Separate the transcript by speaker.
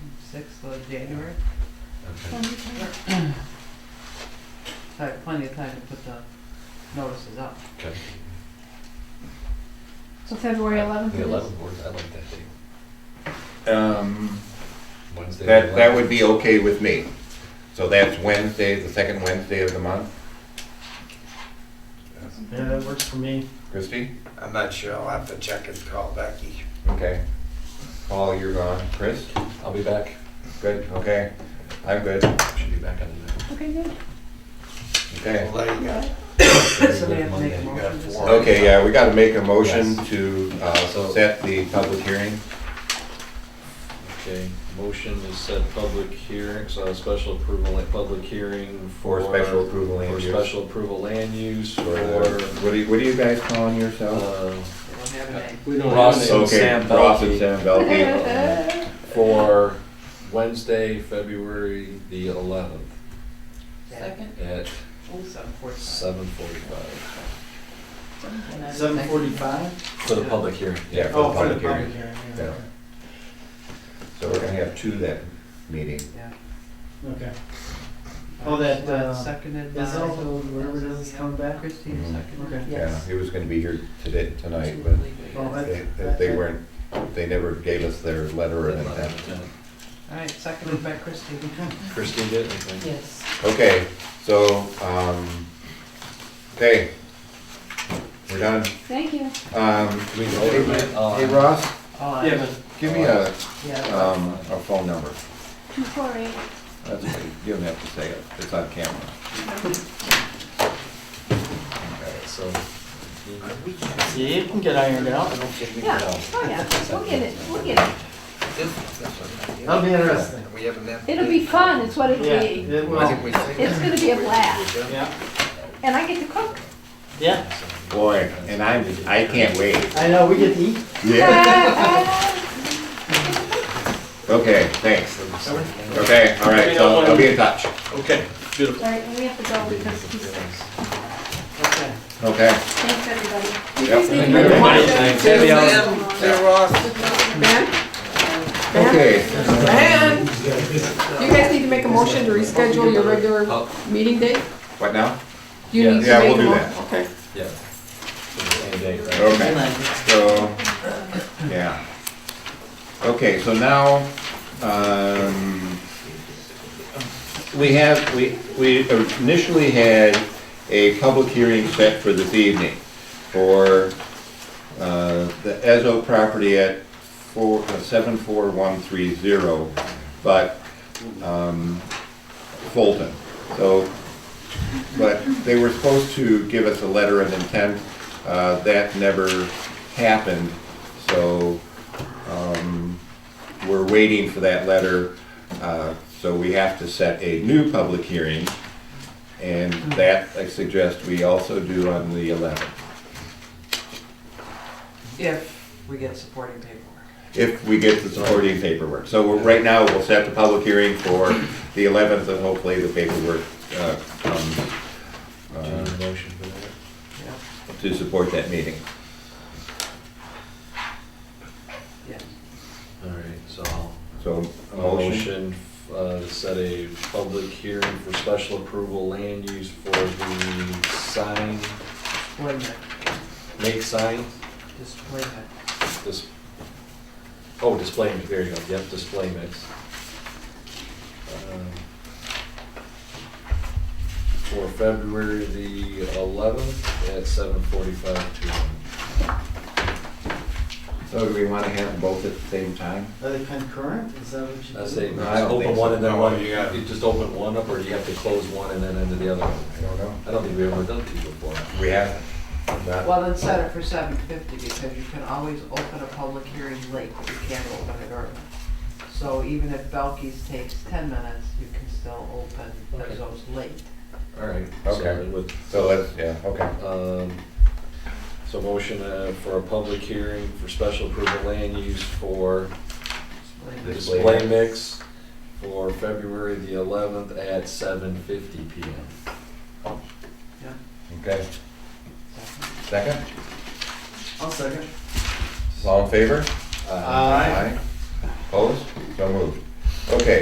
Speaker 1: twenty-sixth of January,
Speaker 2: Okay.
Speaker 3: Twenty-five.
Speaker 1: so I have plenty of time to put the notices up.
Speaker 2: Okay.
Speaker 3: So February eleventh
Speaker 2: The
Speaker 3: it is.
Speaker 2: eleventh board, I like that date.
Speaker 4: Um,
Speaker 2: Wednesday.
Speaker 4: that, that
Speaker 2: 11th.
Speaker 4: would be okay with me. So that's Wednesday, the second Wednesday of the month.
Speaker 5: Yeah, that works for me.
Speaker 4: Christie?
Speaker 6: I'm not sure. I'll have to check and call Becky.
Speaker 4: Okay. Paul, you're gone. Chris?
Speaker 2: I'll be back.
Speaker 4: Good, okay. I'm good.
Speaker 2: Should be back on the.
Speaker 3: Okay, good.
Speaker 4: Okay.
Speaker 6: Well, there you go.
Speaker 1: Somebody have to make a
Speaker 2: You
Speaker 1: motion
Speaker 2: got
Speaker 1: to
Speaker 2: four.
Speaker 1: set-
Speaker 4: Okay, yeah, we gotta make a motion
Speaker 2: Yes.
Speaker 4: to, uh,
Speaker 2: So-
Speaker 4: set the public hearing.
Speaker 2: Okay, motion to set public hearing, so a special approval, like public hearing
Speaker 4: For
Speaker 2: for.
Speaker 4: special approval land
Speaker 2: For
Speaker 4: use.
Speaker 2: special approval land use
Speaker 4: Or,
Speaker 2: for,
Speaker 4: what do you, what are you guys calling yourselves?
Speaker 1: They
Speaker 2: uh,
Speaker 1: don't have a name.
Speaker 5: We
Speaker 2: Ross and
Speaker 4: Okay,
Speaker 2: Sam
Speaker 4: Ross and
Speaker 2: Belkey.
Speaker 4: Sam Belkey.
Speaker 2: For Wednesday, February the eleventh
Speaker 1: Second?
Speaker 2: at
Speaker 1: Oh, seven forty-five.
Speaker 2: seven forty-five.
Speaker 5: Seven forty-five?
Speaker 2: For the public hearing.
Speaker 4: Yeah, for
Speaker 5: Oh,
Speaker 4: the
Speaker 5: for the
Speaker 4: public hearing.
Speaker 5: public hearing,
Speaker 4: Yeah.
Speaker 5: yeah.
Speaker 4: So we're gonna have two that meeting.
Speaker 1: Yeah.
Speaker 5: Okay. Oh, that, uh,
Speaker 1: Seconded by.
Speaker 5: Is all the, whatever it is, is coming back?
Speaker 1: Christie
Speaker 4: Mhm.
Speaker 1: seconded.
Speaker 5: Okay.
Speaker 4: Yeah,
Speaker 3: Yes.
Speaker 4: he was gonna be here today, tonight, but
Speaker 5: Well,
Speaker 1: All
Speaker 5: that-
Speaker 4: they, that they weren't, they never gave us their letter or anything.
Speaker 1: right, seconded by Christie.
Speaker 2: Christine did, anything?
Speaker 1: Yes.
Speaker 4: Okay, so, um, okay. We're done.
Speaker 3: Thank you.
Speaker 4: Um,
Speaker 2: Do we vote
Speaker 4: hey,
Speaker 2: on that? Oh,
Speaker 4: hey, Ross,
Speaker 1: All
Speaker 5: Yeah,
Speaker 1: right.
Speaker 5: but
Speaker 4: give me a,
Speaker 1: Yeah.
Speaker 4: um, a phone number.
Speaker 3: Two four eight.
Speaker 4: That's okay, you don't have to say it, it's on camera.
Speaker 2: Alright, so.
Speaker 5: See, it can get ironed out.
Speaker 3: Yeah, oh yeah, we'll get it, we'll get it.
Speaker 5: That'll be interesting.
Speaker 6: We haven't had.
Speaker 3: It'll be fun, it's what it'll
Speaker 5: Yeah,
Speaker 3: be.
Speaker 5: it
Speaker 6: I think
Speaker 5: will.
Speaker 6: we think-
Speaker 3: It's gonna be a blast.
Speaker 5: Yeah,
Speaker 3: And I get to cook.
Speaker 5: yeah.
Speaker 4: Boy, and I'm, I can't wait.
Speaker 5: I know, we get to eat.
Speaker 4: Yeah, okay, thanks. Okay, all right, so I'll be in touch.
Speaker 2: Okay, beautiful.
Speaker 3: All right, and we have to go because he's,
Speaker 1: Okay.
Speaker 4: Okay.
Speaker 3: thanks everybody.
Speaker 4: Yep.
Speaker 3: Thank you.
Speaker 2: Thanks, Danielle.
Speaker 4: Okay.
Speaker 7: Man, you guys need to make a motion to reschedule your regular
Speaker 2: Oh,
Speaker 7: meeting date?
Speaker 4: What now?
Speaker 7: You need to
Speaker 4: Yeah,
Speaker 7: make
Speaker 4: we'll
Speaker 7: a
Speaker 4: do
Speaker 7: mo-
Speaker 4: that.
Speaker 7: Okay.
Speaker 2: yeah. Same date, right?
Speaker 4: Okay, so, yeah. Okay, so now, um, we have, we, we initially had a public hearing set for this evening for, uh, the Ezo property at four, uh, seven four one three zero, but, um, Fulton. So but they were supposed to give us a letter of intent. Uh, That never happened, so um, we're waiting for that letter. Uh, So we have to set a new public hearing, and that I suggest we also do on the 11th,
Speaker 1: If we get supporting paperwork.
Speaker 4: if we get the supporting paperwork. So we're- right now, we'll set the public hearing for the 11th, and hopefully the paperwork uh, comes
Speaker 2: Do you need a Uh, motion for that?
Speaker 1: Yeah,
Speaker 4: to support that meeting.
Speaker 1: yeah.
Speaker 2: Alright, so I'll
Speaker 4: So a motion.
Speaker 2: Motion, uh, to set a public hearing for special approval land use for the sign,
Speaker 1: Wait a minute,
Speaker 2: make sign,
Speaker 1: just wait a minute.
Speaker 2: this, oh, display mix, there you go, yep, display mix. Um, For February the eleventh at seven forty-five PM.
Speaker 4: So do we want to have them both at the same time?
Speaker 5: Are they concurrent? Is that what you do?
Speaker 2: I say,
Speaker 4: No, I don't
Speaker 2: open
Speaker 4: think
Speaker 2: one
Speaker 4: so.
Speaker 2: and then
Speaker 6: No,
Speaker 2: one,
Speaker 6: you
Speaker 2: you
Speaker 6: got-
Speaker 2: just open one up, or do you have to close one and then into the other one?
Speaker 4: I don't know.
Speaker 2: I don't think we've ever done two before.
Speaker 4: We haven't. Not-
Speaker 1: Well, then set it for seven fifty, because you can always open a public hearing late, but you can't open it early. So even if Belkey's takes ten minutes, you can still open
Speaker 2: Okay.
Speaker 1: those late.
Speaker 2: All right.
Speaker 4: Okay.
Speaker 2: So it would-
Speaker 4: So let's, yeah, okay.
Speaker 2: Um, So motion uh, for a public hearing for special approval land use for the
Speaker 4: Display
Speaker 2: display
Speaker 4: mix.
Speaker 2: mix for February the 11th at 7:50 PM.
Speaker 1: Yeah.
Speaker 4: Okay. Second?
Speaker 5: I'll second.
Speaker 4: All in favor?
Speaker 2: Uh,
Speaker 5: Aye.
Speaker 4: Opposed? So moved. Okay,